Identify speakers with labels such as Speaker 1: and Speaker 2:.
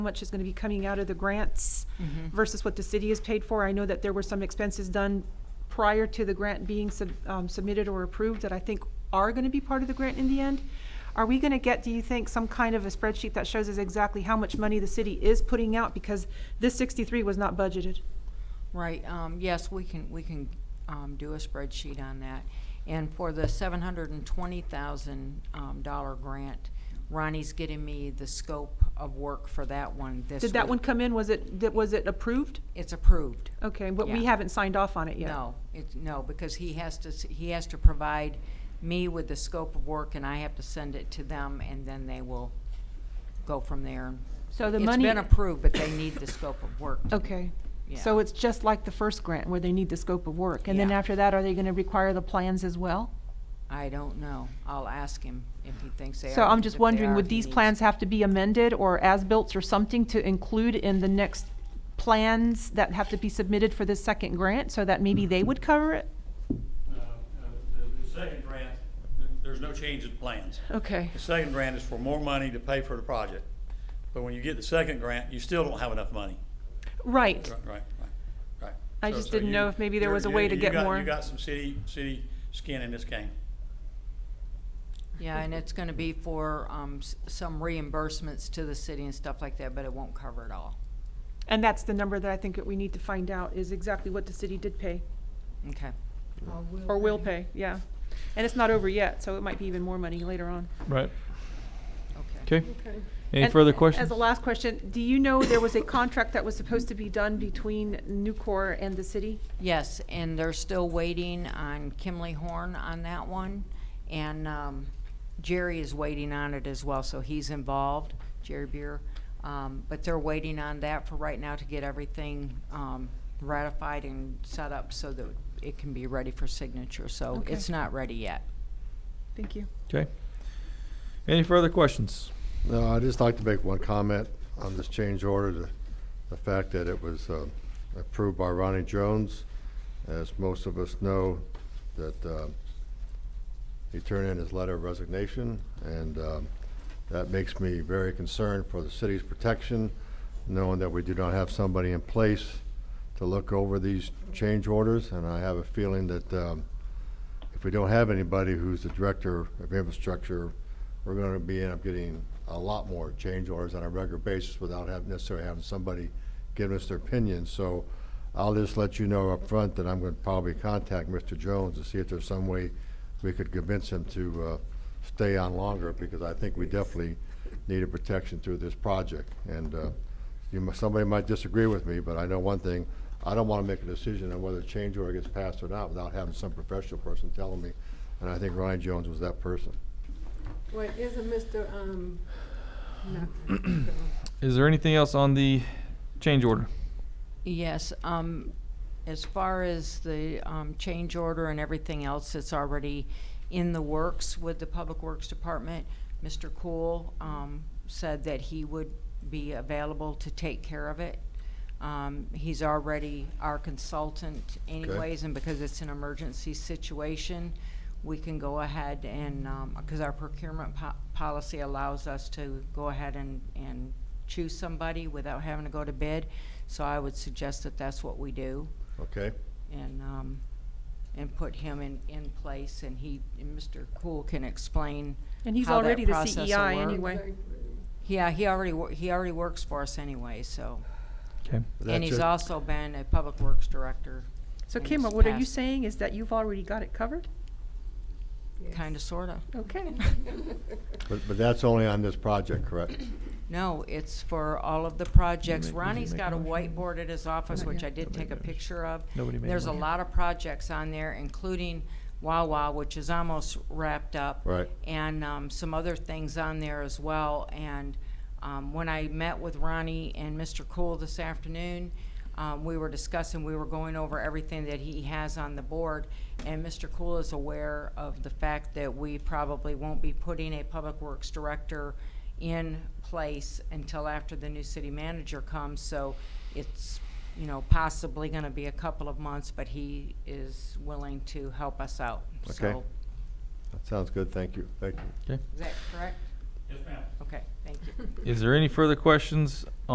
Speaker 1: much is going to be coming out of the grants
Speaker 2: Mm-hmm.
Speaker 1: versus what the city has paid for. I know that there were some expenses done prior to the grant being sub- um, submitted or approved that I think are going to be part of the grant in the end. Are we going to get, do you think, some kind of a spreadsheet that shows us exactly how much money the city is putting out? Because this 63 was not budgeted.
Speaker 2: Right, um, yes, we can, we can, um, do a spreadsheet on that. And for the seven hundred and twenty thousand, um, dollar grant, Ronnie's getting me the scope of work for that one this
Speaker 1: Did that
Speaker 2: week.
Speaker 1: one come in? Was it, that- was it approved?
Speaker 2: It's approved.
Speaker 1: Okay, but we
Speaker 2: Yeah.
Speaker 1: haven't signed off on it yet.
Speaker 2: No, it's, no, because he has to, s- he has to provide me with the scope of work and I have to send it to them and then they will go from there.
Speaker 1: So the
Speaker 2: It's
Speaker 1: money.
Speaker 2: been approved, but they need the scope of work.
Speaker 1: Okay. So
Speaker 2: Yeah.
Speaker 1: it's just like the first grant where they need the scope of work? And then
Speaker 2: Yeah.
Speaker 1: after that, are they gonna require the plans as well?
Speaker 2: I don't know. I'll ask him if he thinks they are.
Speaker 1: So I'm
Speaker 2: if
Speaker 1: just
Speaker 2: they are,
Speaker 1: wondering, would
Speaker 2: he
Speaker 1: these
Speaker 2: needs-
Speaker 1: plans have to be amended or as-built or something to include in the next plans that have to be submitted for this second grant so that maybe they would cover it?
Speaker 3: Uh, uh, The the second grant, there- there's no change in plans.
Speaker 1: Okay.
Speaker 3: The second grant is for more money to pay for the project. But when you get the second grant, you still don't have enough money.
Speaker 1: Right.
Speaker 3: Right, right, right, right.
Speaker 1: I
Speaker 3: So-
Speaker 1: just
Speaker 3: so
Speaker 1: didn't
Speaker 3: you-
Speaker 1: know if maybe there
Speaker 3: you're-
Speaker 1: was a
Speaker 3: you-
Speaker 1: way to
Speaker 3: you
Speaker 1: get
Speaker 3: got-
Speaker 1: more.
Speaker 3: You got some city, city skin in this game.
Speaker 2: Yeah, and it's gonna be for, um, s- some reimbursements to the city and stuff like that, but it won't cover it all.
Speaker 1: And that's the number that I think that we need to find out is exactly what the city did pay
Speaker 2: Okay.
Speaker 1: or will pay, yeah. And it's not over yet, so it might be even more money later on.
Speaker 4: Right.
Speaker 2: Okay.
Speaker 4: Okay. Any
Speaker 1: And
Speaker 4: further questions?
Speaker 1: As a last question, do you know there was a contract that was supposed to be done between Nucor and the city?
Speaker 2: Yes, and they're still waiting on Kimley Horn on that one. And, um, Jerry is waiting on it as well, so he's involved, Jerry Beer. Um, but they're waiting on that for right now to get everything, um, ratified and set up so that it can be ready for signature, so
Speaker 1: Okay.
Speaker 2: it's not ready yet.
Speaker 1: Thank you.
Speaker 4: okay. Any further questions?
Speaker 5: No, I'd just like to make one comment on this change order, the, the fact that it was, uh, approved by Ronnie Jones. As most of us know, that, uh, he turned in his letter of resignation, and, um, that makes me very concerned for the city's protection, knowing that we do not have somebody in place to look over these change orders, and I have a feeling that, um, if we don't have anybody who's the director of infrastructure, we're gonna be end up getting a lot more change orders on a regular basis without having, necessarily having somebody giving us their opinion. So I'll just let you know up front that I'm gonna probably contact Mr. Jones to see if there's some way we could convince him to, uh, stay on longer, because I think we definitely needed protection through this project. And, uh, you, mu- somebody might disagree with me, but I know one thing, I don't wanna make a decision on whether a change order gets passed or not without having some professional person telling me, and I think Ryan Jones was that person.
Speaker 6: Well, isn't Mr., um, nothing.
Speaker 4: Is there anything else on the change order?
Speaker 2: Yes, um, as far as the, um, change order and everything else that's already in the works with the Public Works Department, Mr. Cool, um, said that he would be available to take care of it. Um, he's already our consultant anyways, and because it's an emergency situation, we can go ahead and, um 'cause cause our procurement po- policy allows us to go ahead and, and choose somebody without having to go to bid. So I would suggest that that's what we do
Speaker 5: Okay,
Speaker 2: and, um, and put him in, in place and he, and Mr. Cool can explain.
Speaker 1: And he's
Speaker 2: how that
Speaker 1: already the
Speaker 2: process will
Speaker 1: CEI
Speaker 2: work.
Speaker 1: anyway.
Speaker 2: Yeah, he already, wor- he already works for us anyway, so.
Speaker 4: Okay.
Speaker 2: And
Speaker 5: That's
Speaker 2: he's
Speaker 5: it.
Speaker 2: also been a public works director,
Speaker 1: So
Speaker 2: And
Speaker 1: Kimma,
Speaker 2: it's
Speaker 1: what are you
Speaker 2: passed.
Speaker 1: saying is that you've already got it covered?
Speaker 2: kinda, sorta.
Speaker 1: Okay.
Speaker 5: but, but that's only on this project, correct?
Speaker 2: No, it's for all of the projects.
Speaker 4: make- did you
Speaker 2: Ronnie's
Speaker 4: make
Speaker 2: got
Speaker 4: a
Speaker 2: a
Speaker 4: motion?
Speaker 2: whiteboard at his office, which I did
Speaker 4: Nobody
Speaker 2: take a
Speaker 4: knows.
Speaker 2: picture of.
Speaker 4: Nobody made a
Speaker 2: There's a
Speaker 4: motion.
Speaker 2: lot of projects on there, including Wawa, which is almost wrapped up.
Speaker 5: Right.
Speaker 2: And, um, some other things on there as well. And, um, when I met with Ronnie and Mr. Cool this afternoon, um, we were discussing, we were going over everything that he has on the board. And Mr. Cool is aware of the fact that we probably won't be putting a public works director in place until after the new city manager comes, so it's, you know, possibly gonna be a couple of months, but he is willing to help us out,
Speaker 5: Okay.
Speaker 2: so.
Speaker 5: That sounds good, thank you, thank you.
Speaker 4: Okay.
Speaker 2: Is that correct?
Speaker 3: Yes, ma'am.
Speaker 2: Okay, thank you.
Speaker 4: Is there any further questions